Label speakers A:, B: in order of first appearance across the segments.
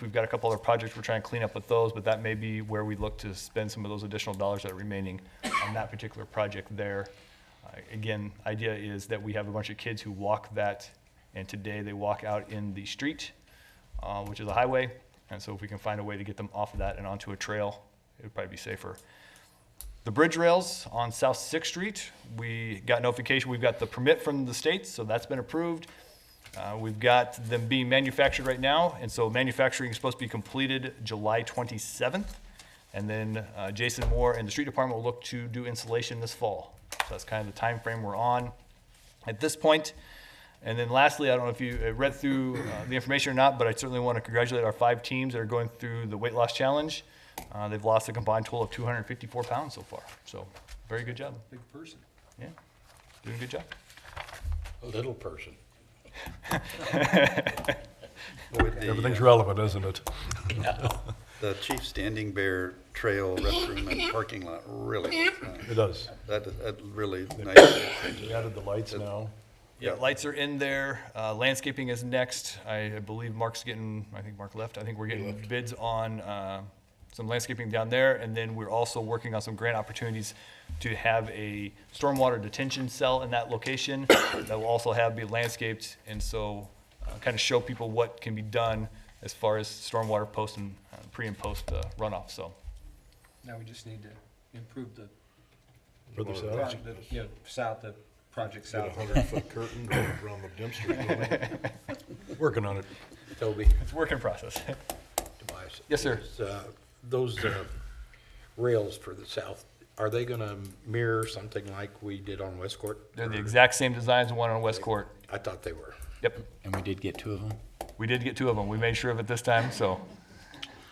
A: We've got a couple other projects we're trying to clean up with those, but that may be where we look to spend some of those additional dollars that are remaining on that particular project there. Uh, Again, idea is that we have a bunch of kids who walk that, and today they walk out in the street, uh, which is a highway. And so if we can find a way to get them off of that and onto a trail, it would probably be safer. The bridge rails on South Sixth Street, we got notification, we've got the permit from the state, so that's been approved. Uh, We've got them being manufactured right now, and so manufacturing is supposed to be completed July 27th. And then uh, Jason Moore and the street department will look to do insulation this fall. So that's kind of the time frame we're on at this point. And then lastly, I don't know if you uh, read through uh, the information or not, but I certainly want to congratulate our five teams that are going through the weight loss challenge. Uh, They've lost a combined total of 254 pounds so far, so very good job.
B: Big person.
A: Yeah, doing a good job.
C: A little person.
D: With
B: Everything's
D: the, uh,
B: relevant, isn't it?
D: the Chief Standing Bear Trail restroom and parking lot, really, is nice.
B: It does.
D: that, that really nice.
B: We added the lights now.
A: Yeah,
D: Yeah.
A: lights are in there. Uh, landscaping is next. I I believe Mark's getting, I think Mark left. I think we're getting bids on, uh, some landscaping down there. And then we're also working on some grant opportunities to have a stormwater detention cell in that location that will also have, be landscaped. And so, uh, kind of show people what can be done as far as stormwater post and uh, pre and post uh, runoff, so.
E: Now we just need to improve the
B: Further south.
E: project, that- you know, south, the project
F: Got a
E: south.
F: hundred foot curtain around the dumpster building.
B: Working on it.
C: Toby,
A: It's a work in process.
C: Tobias.
A: Yes, sir.
C: is, uh, Those uh, rails for the south, are they going to mirror something like we did on West Court?
A: They're the
C: Or-
A: exact same design as the one on West Court.
C: I thought they were.
A: Yep.
G: And we did get two of them.
A: We did get two of them. We made sure of it this time, so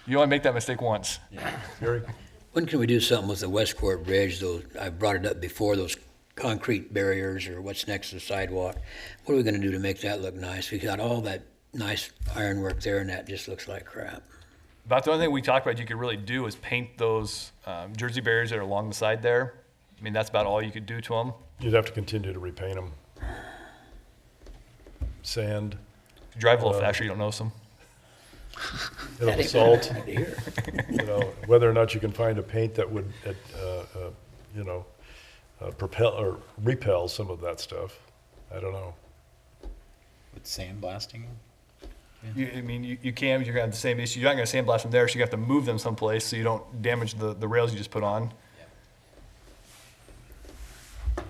A: you only make that mistake once.
B: Gary,
H: When can we do something with the Westport Bridge, those, I brought it up before, those concrete barriers or what's next to the sidewalk? What are we gonna do to make that look nice? We got all that nice ironwork there and that just looks like crap.
A: About the only thing we talked about you could really do is paint those um, Jersey barriers that are along the side there. I mean, that's about all you could do to them.
B: you'd have to continue to repaint them. Sand,
A: Drive a little faster, you don't notice them.
B: a little salt, you know, whether or not you can find a paint that would, uh, uh, you know, uh, propel or repel some of that stuff. I don't know.
G: With sandblasting?
A: You, I mean, you, you can, but you're gonna have the same issue. You're not gonna sandblast them there, so you have to move them someplace so you don't damage the, the rails you just put on.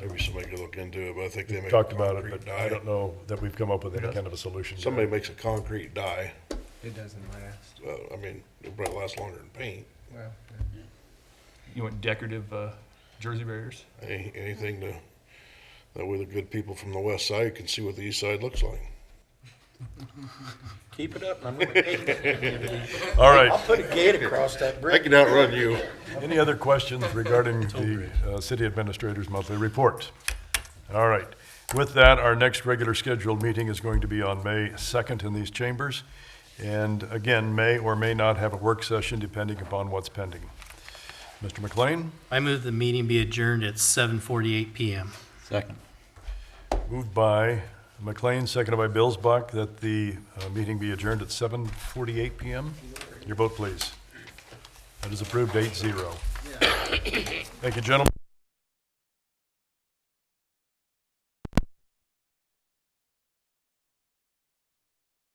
F: Maybe somebody could look into it, but I think they make. a
B: Talked about it,
F: concrete
B: but I
F: die.
B: don't know that we've come up with any kind of a solution. yet.
F: Somebody makes a concrete die,
E: It doesn't last.
F: uh, I mean, it'll probably last longer than paint.
E: Well,
A: You want decorative uh, Jersey barriers?
F: Any, anything to, that way the good people from the west side can see what the east side looks like.
C: Keep it up and I'm going to take it.
B: All right.
C: I'll put a gate across that bridge.
F: I can outrun you.
B: Any other questions regarding the uh, city administrator's monthly report? All right. With that, our next regular scheduled meeting is going to be on May 2nd in these chambers. And again, may or may not have a work session depending upon what's pending. Mr. McLean,
I: I move the meeting be adjourned at 7:48 PM.
G: Second.
B: moved by McLean, seconded by Billsbach, that the uh, meeting be adjourned at 7:48 PM. Your vote, please. That is approved, 8-0. Thank you, gentlemen.